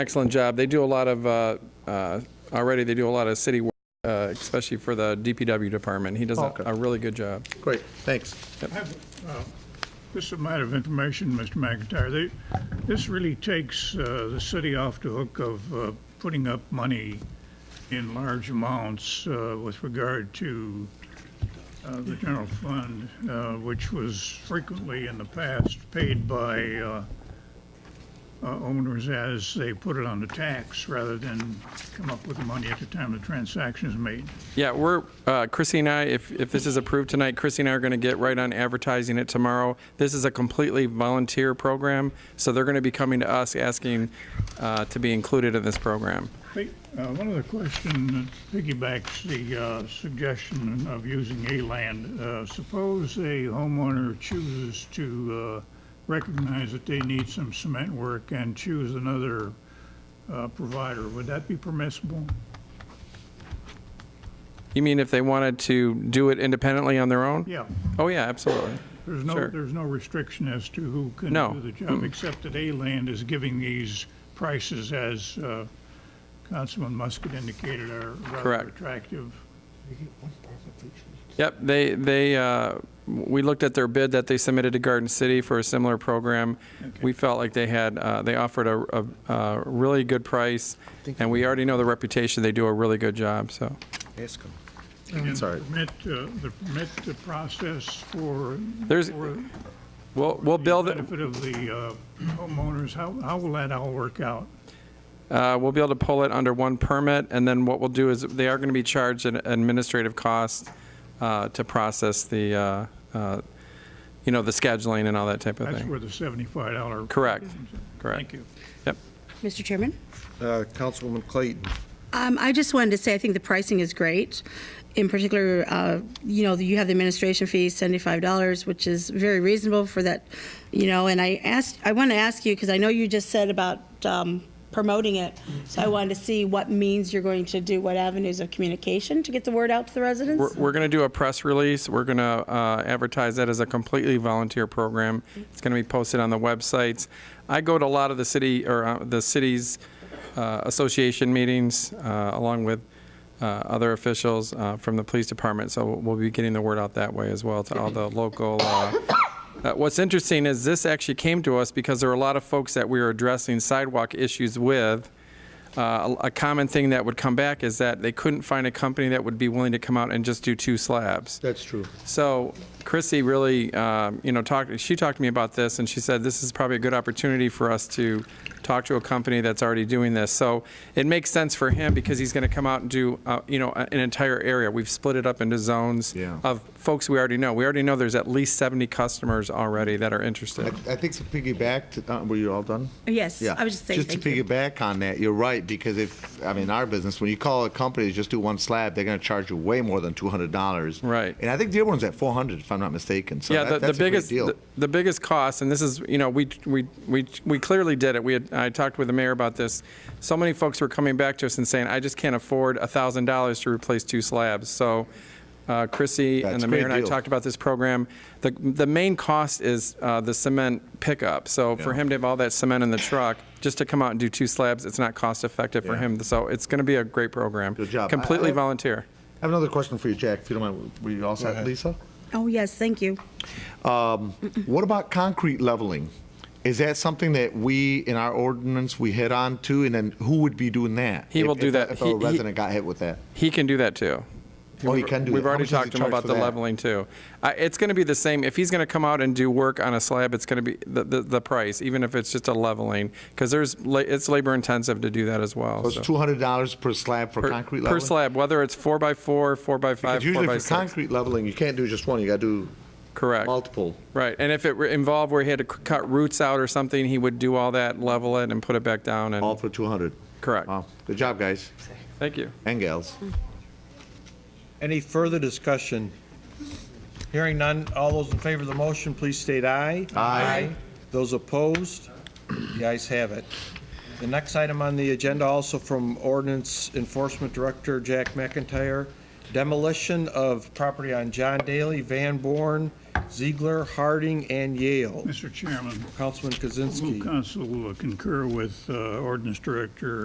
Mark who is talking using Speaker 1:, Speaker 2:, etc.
Speaker 1: excellent job. They do a lot of, uh, uh, already, they do a lot of city, work, uh, especially for the DPW department. He does a
Speaker 2: Okay.
Speaker 1: a really good job.
Speaker 2: Great, thanks.
Speaker 3: I have, uh, Just a matter of information, Mr. McIntyre. They- This really takes uh, the city off the hook of uh, putting up money in large amounts uh, with regard to uh, the general fund, uh, which was frequently in the past paid by uh, uh, owners as they put it on the tax rather than come up with the money at the time the transaction is made.
Speaker 1: Yeah, we're, uh, Chrissy and I, if, if this is approved tonight, Chrissy and I are going to get right on advertising it tomorrow. This is a completely volunteer program, so they're going to be coming to us asking uh, to be included in this program.
Speaker 3: Hey, uh, One other question that piggybacks the uh, suggestion of using A-land. Uh, Suppose a homeowner chooses to uh, recognize that they need some cement work and choose another uh, provider, would that be permissible?
Speaker 1: You mean if they wanted to do it independently on their own?
Speaker 3: Yeah,
Speaker 1: Oh, yeah, absolutely.
Speaker 3: there's no,
Speaker 1: Sure.
Speaker 3: there's no restriction as to who can
Speaker 1: No.
Speaker 3: do the job, except that A-land is giving these prices as uh, Councilman Musket indicated are rather
Speaker 1: Correct.
Speaker 3: attractive.
Speaker 1: Yep, they, they, uh, we looked at their bid that they submitted to Garden City for a similar program. We felt like they had, uh, they offered a, a- a really good price, and we already know the reputation, they do a really good job, so.
Speaker 2: Ask him.
Speaker 3: And
Speaker 2: Sorry.
Speaker 3: permit, uh, the permit the process for,
Speaker 1: There's,
Speaker 3: for
Speaker 1: we'll, we'll
Speaker 3: the
Speaker 1: build, it.
Speaker 3: benefit of the uh, homeowners, how, how will that all work out?
Speaker 1: Uh, We'll be able to pull it under one permit, and then what we'll do is, they are going to be charged an administrative cost uh, to process the, uh, uh, you know, the scheduling and all that type of
Speaker 3: That's
Speaker 1: thing.
Speaker 3: where the seventy-five dollar.
Speaker 1: Correct, correct.
Speaker 3: Thank you.
Speaker 1: Yep.
Speaker 4: Mr. Chairman?
Speaker 2: Uh, Councilwoman Clayton,
Speaker 4: Um, I just wanted to say, I think the pricing is great. In particular, uh, you know, you have the administration fee, $75, which is very reasonable for that, you know, and I asked, I want to ask you, because I know you just said about um, promoting it, so I wanted to see what means you're going to do, what avenues of communication to get the word out to the
Speaker 1: We're,
Speaker 4: residents?
Speaker 1: we're going to do a press release. We're going to advertise that as a completely volunteer program. It's going to be posted on the websites. I go to a lot of the city, or uh, the city's uh, association meetings, uh, along with uh, other officials uh, from the police department, so we'll be getting the word out that way as well to all the local uh, uh, What's interesting is this actually came to us because there were a lot of folks that we were addressing sidewalk issues with. Uh, A a common thing that would come back is that they couldn't find a company that would be willing to come out and just do two slabs.
Speaker 2: that's true.
Speaker 1: So Chrissy really, um, you know, talked, she talked to me about this, and she said, this is probably a good opportunity for us to talk to a company that's already doing this. So it makes sense for him, because he's going to come out and do, uh, you know, a- an entire area. We've split it up into zones
Speaker 2: Yeah.
Speaker 1: of folks we already know. We already know there's at least 70 customers already that are interested.
Speaker 2: I think to piggyback, to- uh, were you all done?
Speaker 4: Yes,
Speaker 2: Yeah.
Speaker 4: I was just saying,
Speaker 2: Just
Speaker 4: thank
Speaker 2: to
Speaker 4: you.
Speaker 2: piggyback on that, you're right, because if, I mean, our business, when you call a company to just do one slab, they're going to charge you way more than $200.
Speaker 1: Right.
Speaker 2: And I think Dearborn's at 400, if I'm not mistaken, so
Speaker 1: Yeah, the,
Speaker 2: that-
Speaker 1: the
Speaker 2: that's a great
Speaker 1: biggest,
Speaker 2: deal.
Speaker 1: the, the biggest cost, and this is, you know, we, we, we, we clearly did it. We had, I talked with the mayor about this. So many folks were coming back to us and saying, I just can't afford a thousand dollars to replace two slabs. So, uh, Chrissy and
Speaker 2: That's
Speaker 1: the
Speaker 2: a
Speaker 1: mayor
Speaker 2: great
Speaker 1: and I
Speaker 2: deal.
Speaker 1: talked about this program. The, the main cost is, uh, the cement pickup. So for
Speaker 2: Yeah.
Speaker 1: him to have all that cement in the truck, just to come out and do two slabs, it's not cost effective for
Speaker 2: Yeah.
Speaker 1: him. So it's gonna be a great program.
Speaker 2: Good job. I-
Speaker 1: Completely
Speaker 2: I-
Speaker 1: volunteer.
Speaker 2: I have another question for you, Jack, if you don't mind. Were you all set, Lisa?
Speaker 4: Oh, yes, thank you.
Speaker 2: What about concrete leveling? Is that something that we, in our ordinance, we head on to, and then who would be doing that?
Speaker 1: He will
Speaker 2: If-
Speaker 1: do
Speaker 2: if-
Speaker 1: that.
Speaker 2: If a
Speaker 1: He- he-
Speaker 2: resident got hit with that?
Speaker 1: He can do that too.
Speaker 2: Oh, he can do
Speaker 1: We've
Speaker 2: that. How
Speaker 1: already
Speaker 2: much does
Speaker 1: talked
Speaker 2: he
Speaker 1: to him
Speaker 2: charge
Speaker 1: about
Speaker 2: for
Speaker 1: the
Speaker 2: that?
Speaker 1: leveling too. I- It's going to be the same, if he's going to come out and do work on a slab, it's going to be the, the, the price, even if it's just a leveling, because there's, la- it's labor intensive to do that as well.
Speaker 2: So It's
Speaker 1: so.
Speaker 2: $200 per slab for
Speaker 1: Per-
Speaker 2: concrete leveling?
Speaker 1: Per slab, whether it's four by four, four by five,
Speaker 2: Because
Speaker 1: four
Speaker 2: usually
Speaker 1: by
Speaker 2: for
Speaker 1: six.
Speaker 2: concrete leveling, you can't do just one, you got to do
Speaker 1: Correct.
Speaker 2: multiple.
Speaker 1: Right, and if it were involved where he had to c- cut roots out or something, he would do all that, level it and put it back down
Speaker 2: All
Speaker 1: and,
Speaker 2: for 200.
Speaker 1: Correct.
Speaker 2: Wow, good job, guys
Speaker 1: thank you.
Speaker 2: and gals.
Speaker 5: Any further discussion? Hearing none, all those in favor of the motion, please state aye.
Speaker 2: Aye.
Speaker 5: Those opposed? The ayes have it. The next item on the agenda, also from Ordinance Enforcement Director Jack McIntyre, demolition of property on John Daly, Van Born, Ziegler, Harding, and Yale.
Speaker 3: Mr. Chairman,
Speaker 5: Councilman Kaczynski.
Speaker 3: will council concur with uh, ordinance director